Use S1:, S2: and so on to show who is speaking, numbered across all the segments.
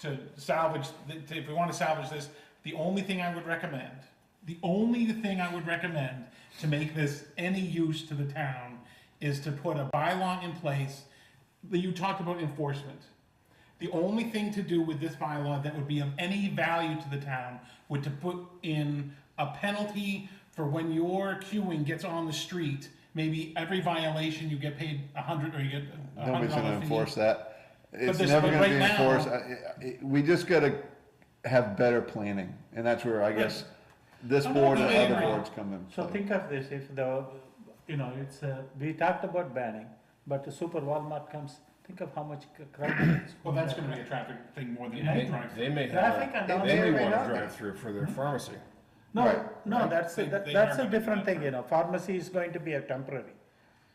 S1: to salvage, th- to- if we want to salvage this, the only thing I would recommend, the only thing I would recommend to make this any use to the town is to put a bylaw in place that you talked about enforcement. The only thing to do with this bylaw that would be of any value to the town would to put in a penalty for when your queuing gets on the street. Maybe every violation you get paid a hundred or you get a hundred
S2: Nobody's gonna
S1: dollar fee.
S2: enforce that. It's
S1: there's-
S2: never
S1: but
S2: gonna be
S1: right now-
S2: enforced. I- I- I- We just gotta have better planning, and that's where I guess this
S1: I'm
S2: board and
S1: totally
S2: other
S1: agree.
S2: boards come in
S3: So
S2: play.
S3: think of this, if the, you know, it's, uh, we talked about banning, but the super Walmart comes, think of how much c- crime. is
S1: Well, that's
S3: going
S1: gonna be a traffic thing more than
S4: They
S1: any drive.
S4: they may
S3: Traffic
S4: have,
S3: and
S4: a-
S3: all
S4: they
S3: that.
S4: may want
S2: Right.
S4: a drive-through for
S1: Mm-hmm.
S4: their pharmacy.
S3: No,
S2: Right,
S3: no, that's,
S1: They-
S3: that-
S1: they
S3: that's
S1: are
S3: a
S1: gonna do
S3: different
S1: that.
S3: thing, you know, pharmacy is going to be a temporary.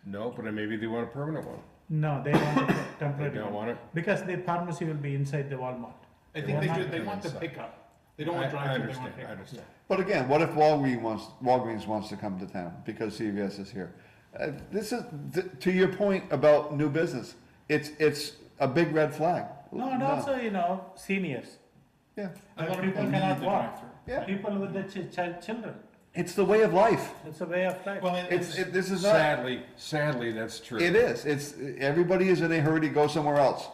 S4: No, but maybe they want a permanent one.
S3: No, they want a
S4: They
S3: temporary.
S4: don't want it.
S3: Because the pharmacy will be inside the Walmart.
S1: I think they
S3: Walmart
S1: do, they
S4: is
S1: want the
S4: inside.
S1: pickup. They
S4: I
S1: don't want
S4: I
S1: drive-through, they
S4: understand,
S1: want
S4: I
S1: pickup.
S4: understand.
S2: But again, what if Walgreens wants, Walgreens wants to come to town because CVS is here? Uh, This is, th- to your point about new business, it's, it's a big red flag.
S3: No, and also, you know, seniors,
S1: A
S2: Yeah,
S1: lot of
S3: people
S1: people need
S3: cannot
S1: the
S3: walk.
S1: drive-through.
S2: yeah,
S3: people with the ch- ch- children,
S2: it's the way of life.
S3: it's a way of life.
S1: Well, it-
S2: It's,
S1: it's,
S2: it- this is not,
S4: Sadly, sadly, that's true.
S2: it is, it's, everybody is in a hurry to go somewhere else,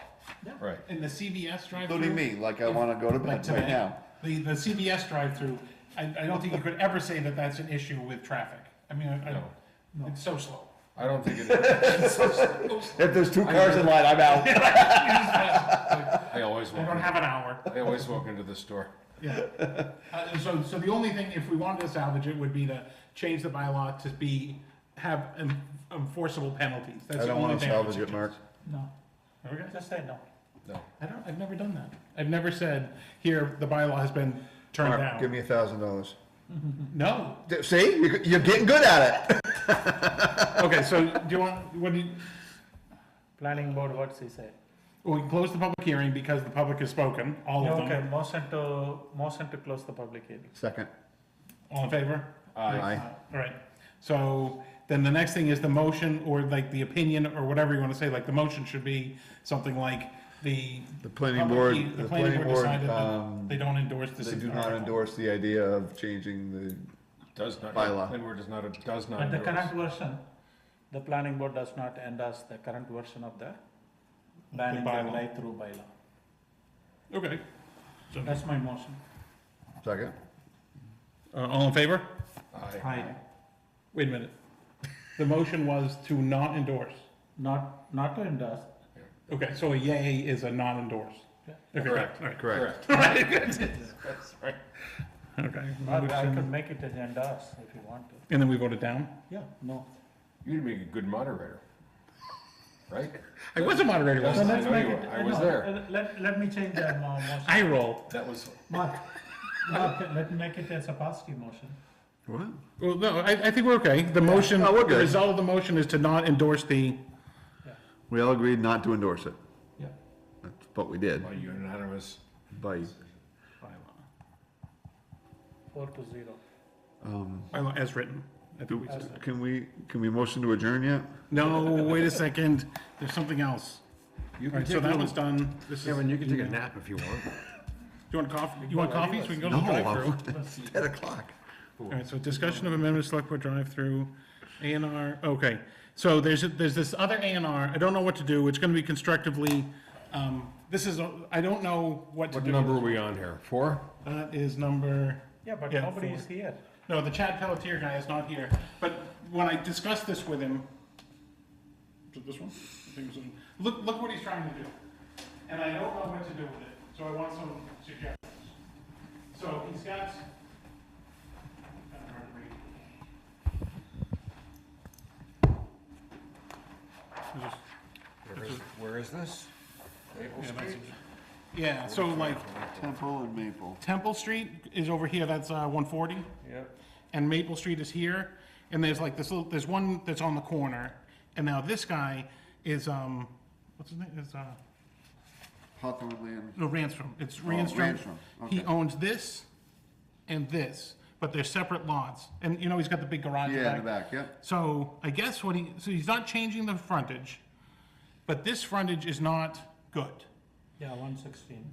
S4: Right.
S1: in the CVS drive-through.
S2: including me, like I wanna go to
S1: Like
S2: bed
S1: today,
S2: right now.
S1: The, the CVS drive-through, I, I don't think you could ever say that that's an issue with traffic. I mean, I, I,
S4: No.
S1: it's so slow.
S4: I don't think it,
S2: If there's two cars in line, I'm out.
S1: I
S4: I always walk,
S1: don't
S4: in-
S1: have an hour.
S4: I always walk into the store.
S1: Yeah. Uh, so, so the only thing, if we wanted to salvage it, would be to change the bylaw to be, have en- enforceable penalties. That's the only thing. I would suggest.
S3: No,
S1: Okay.
S3: just say no.
S4: No.
S1: I don't, I've never done that. I've never said, here, the bylaw has been turned down.
S2: me a thousand dollars.
S1: No.
S2: See, you're, you're getting good at it.
S1: Okay, so do you want, what do you,
S3: Planning board, what's he say?
S1: we can close the public hearing because the public has spoken, all of
S3: Okay,
S1: them.
S3: motion to, motion to close the public hearing.
S2: Second.
S1: All in favor?
S2: Aye.
S1: All right. So then the next thing is the motion or like the opinion or whatever you want to say, like the motion should be something like the.
S2: The planning
S1: public
S2: board-
S1: he-
S2: the planning board,
S1: decided that
S2: um,
S1: They don't endorse this.
S2: They do not
S1: article.
S2: endorse the idea of changing the,
S4: Does not,
S2: Bylaw.
S4: planning board does not, does not
S3: But the current
S4: endorse.
S3: version, the planning board does not endorse the current version of the banning the
S1: bylaw.
S3: drive-through bylaw.
S1: Okay.
S3: That's my motion.
S2: second?
S1: Uh, all in favor?
S4: Aye.
S3: Aye.
S1: Wait a minute. The motion was to not endorse.
S3: Not, not to endorse.
S1: Okay, so a yay is a not endorse.
S3: Yeah.
S1: Okay,
S4: Correct.
S1: all right.
S4: Correct.
S1: That's right. Okay.
S3: Or I could make it as endorse if you want to.
S1: And then we voted down?
S3: Yeah. No.
S4: You'd be a good moderator. Right?
S1: I was a moderator last
S4: Yes. I
S1: time.
S3: let's
S4: know
S3: make
S4: you
S3: it-
S4: were. I was
S3: no,
S4: there.
S3: uh, Let, let me change that mo- motion.
S1: I roll.
S4: That was,
S3: Mark, Mark, let me make it as a positive motion.
S2: What?
S1: Well, no, I, I think we're okay. The motion,
S2: No, we're
S1: the
S2: good.
S1: result of the motion is to not endorse the,
S2: We all agreed not to endorse it,
S3: Yeah.
S2: That's what we did,
S4: well, unanimous.
S2: by,
S3: Four to zero.
S2: um,
S1: bylaw as written. I think we said.
S2: can we, can we motion to adjourn yet?
S1: No, wait a second, there's something else.
S4: You
S1: All right, so that one's done. This is, do
S4: Kevin, you can take a nap if you want.
S1: you want coffee, you want coffee so we can go to
S2: No,
S1: the drive-through?
S2: I'm- it's ten o'clock.
S1: All right, so discussion of amendment to select board drive-through, A and R, okay. So there's, there's this other A and R, I don't know what to do, it's gonna be constructively, um, this is, a- I don't know what to
S4: What
S1: do.
S4: number are we on here? Four?
S1: That is number.
S3: Yeah, but
S1: Yeah,
S3: nobody
S1: four.
S3: is here.
S1: No, the Chad Pelletier guy is not here. But when I discussed this with him, is it this one? I think it was this one. Look, look what he's trying to do. And I don't know what to do with it, so I want some suggestions. So he's got. I don't know where to read.
S4: Where is- Where is this? Maple Street?
S1: Yeah, so like
S2: Temple and Maple.
S1: Temple Street is over here, that's uh, 140.
S4: Yep.
S1: and Maple Street is here, and there's like this little, there's one that's on the corner, and now this guy is, um, what's his name, is, uh,
S2: Hawthorne Land.
S1: no, Ransom, it's Ransom.
S2: Ransom,
S1: He
S2: Oh, okay.
S1: owns this and this, but they're separate lots, and you know, he's got the big garage
S2: Yeah, in
S1: back.
S2: the back, yep.
S1: So I guess what he, so he's not changing the frontage, but this frontage is not good.
S3: Yeah, one sixteen.